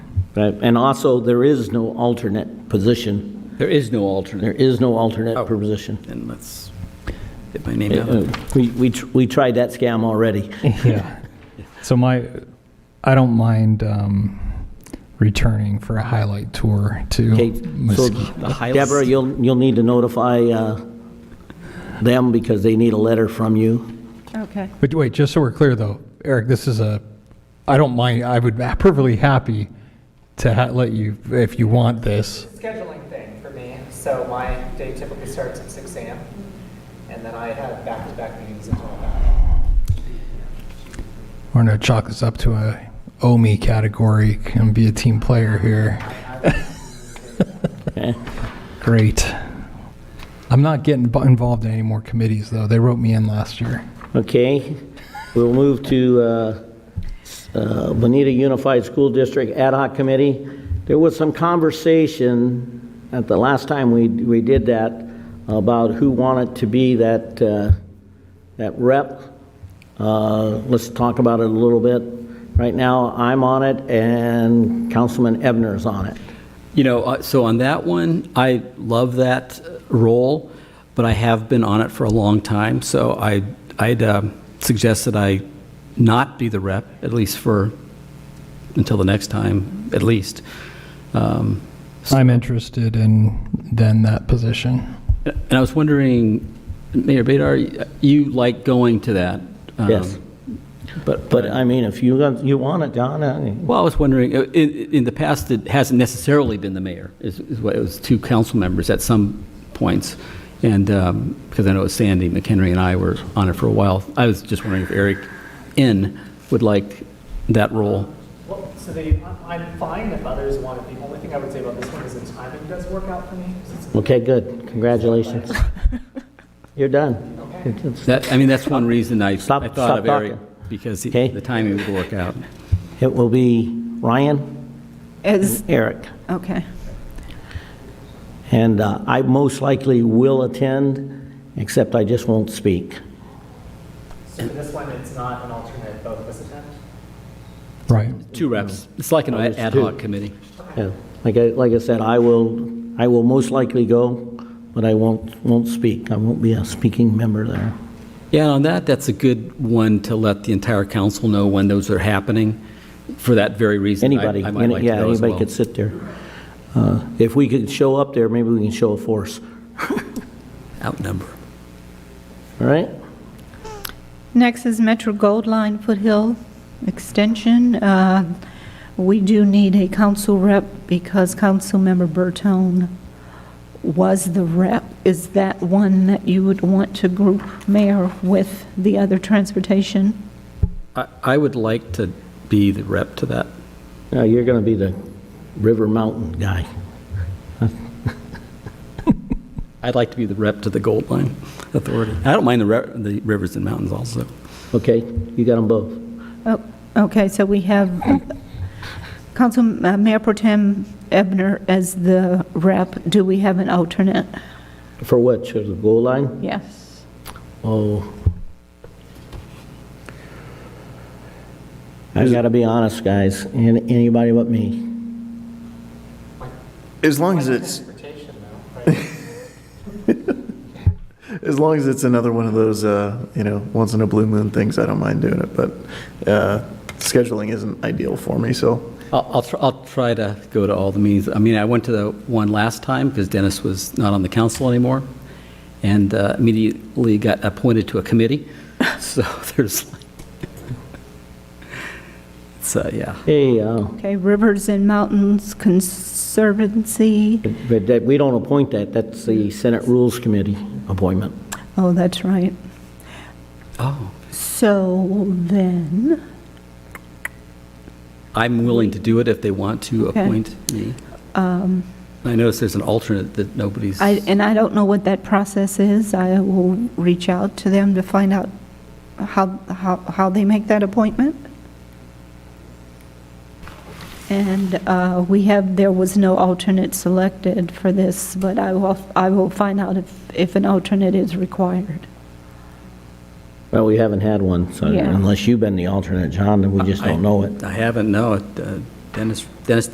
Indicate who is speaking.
Speaker 1: Right, and also, there is no alternate position.
Speaker 2: There is no
Speaker 1: There
Speaker 2: alternate.
Speaker 1: is no alternate per position.
Speaker 2: And let's get my name
Speaker 1: Uh,
Speaker 2: down.
Speaker 1: We, we tr- we tried that scam already.
Speaker 3: Yeah. So my, I don't mind um, returning for a highlight tour to
Speaker 1: Okay, so
Speaker 3: Mesquite.
Speaker 1: Deborah, you'll, you'll need to notify uh, them because they need a letter from you.
Speaker 4: Okay.
Speaker 3: But wait, just so we're clear though, Eric, this is a, I don't mind, I would be perfectly happy to ha- let you, if you want this.
Speaker 5: scheduling thing for me, so my day typically starts at 6 AM, and then I have back-to-back meetings until about.
Speaker 3: We're gonna chalk this up to a OMI category and be a team player here.
Speaker 1: okay?
Speaker 3: Great. I'm not getting bu- involved in any more committees though. They wrote me in last year.
Speaker 1: Okay, we'll move to uh, uh, Bonita Unified School District Ad Hoc Committee. There was some conversation at the last time we, we did that about who wanted to be that, uh, that rep. Uh, Let's talk about it a little bit. Right now, I'm on it and Councilman Ebner's on it.
Speaker 2: You know, uh, so on that one, I love that role, but I have been on it for a long time, so I, I'd um, suggest that I not be the rep, at least for, until the next time, at least. Um,
Speaker 3: I'm interested in then that position.
Speaker 2: And I was wondering, Mayor Bedar, you like going to that? um,
Speaker 1: Yes.
Speaker 2: But,
Speaker 1: But I mean, if you, want- you want it, John, I-
Speaker 2: Well, I was wondering, uh, in, in the past, it hasn't necessarily been the mayor, is, is what, it was two council members at some points. And, um, because I know Sandy McHenry and I were on it for a while. I was just wondering if Eric N. would like that role.
Speaker 5: Well, so they, I'm- I'm fine if others want it. The only thing I would say about this one is the timing does work out for me. 'cause it's-
Speaker 1: okay, good, congratulations. You're done. It's-
Speaker 2: That, I mean, that's one reason I, I
Speaker 1: Stop-
Speaker 2: thought
Speaker 1: stop
Speaker 2: of Eric,
Speaker 1: talking.
Speaker 2: because he-
Speaker 1: Okay.
Speaker 2: the timing would work out.
Speaker 1: It will be Ryan,
Speaker 4: Is,
Speaker 1: Eric,
Speaker 4: okay.
Speaker 1: and uh, I most likely will attend, except I just won't speak.
Speaker 5: So for this one, it's not an alternate, both of us attend?
Speaker 3: Right.
Speaker 2: Two reps. It's like an
Speaker 1: Oh, it's
Speaker 2: ad
Speaker 1: two.
Speaker 2: hoc committee.
Speaker 1: Yeah, Like I, like I said, I will, I will most likely go, but I won't, won't speak. I won't be a speaking member there.
Speaker 2: Yeah, on that, that's a good one to let the entire council know when those are happening, for that very reason. I-
Speaker 1: Anybody,
Speaker 2: I might like to
Speaker 1: yeah,
Speaker 2: go as
Speaker 1: anybody
Speaker 2: well.
Speaker 1: could sit there. Uh, If we could show up there, maybe we can show a force,
Speaker 2: Outnumber.
Speaker 1: all right?
Speaker 4: Next is Metro Gold Line Foothill Extension. Uh, We do need a council rep because Councilmember Bertone was the rep. Is that one that you would want to group mayor with the other transportation?
Speaker 2: I I would like to be the rep to that.
Speaker 1: Now, you're going to be the River Mountain guy.
Speaker 2: I'd like to be the rep to the Gold Line Authority. I don't mind the re- the rivers and mountains also.
Speaker 1: Okay, you got them both.
Speaker 4: Oh, Okay, so we have Council, uh, Mayor Pro Tem Ebner as the rep. Do we have an alternate?
Speaker 1: For what, to the goal line?
Speaker 4: Yes.
Speaker 1: Oh. I gotta be honest, guys, an- anybody but me.
Speaker 6: As long as it's,
Speaker 5: Transportation, though, right?
Speaker 6: as long as it's another one of those, uh, you know, once in a blue moon things, I don't mind doing it, but uh, scheduling isn't ideal for me, so.
Speaker 2: I'll- I'll tr- I'll try to go to all the meetings. I mean, I went to the one last time because Dennis was not on the council anymore, and uh, immediately got appointed to a committee, so there's like... So, yeah.
Speaker 1: Hey, uh,
Speaker 4: Okay, Rivers and Mountains Conservancy.
Speaker 1: but that, we don't appoint that, that's the Senate Rules Committee appointment.
Speaker 4: Oh, that's right.
Speaker 2: Oh.
Speaker 4: So then,
Speaker 2: I'm willing to do it if they want to
Speaker 4: Okay. Um,
Speaker 2: appoint me. I notice there's an alternate that nobody's,
Speaker 4: I, and I don't know what that process is. I will reach out to them to find out how, how, how they make that appointment. And uh, we have, there was no alternate selected for this, but I will, I will find out if, if an alternate is required.
Speaker 1: Well, we haven't had one, so
Speaker 4: Yeah.
Speaker 1: unless you've been the alternate, John, then we just don't know it.
Speaker 2: I haven't, no, uh, Dennis, Dennis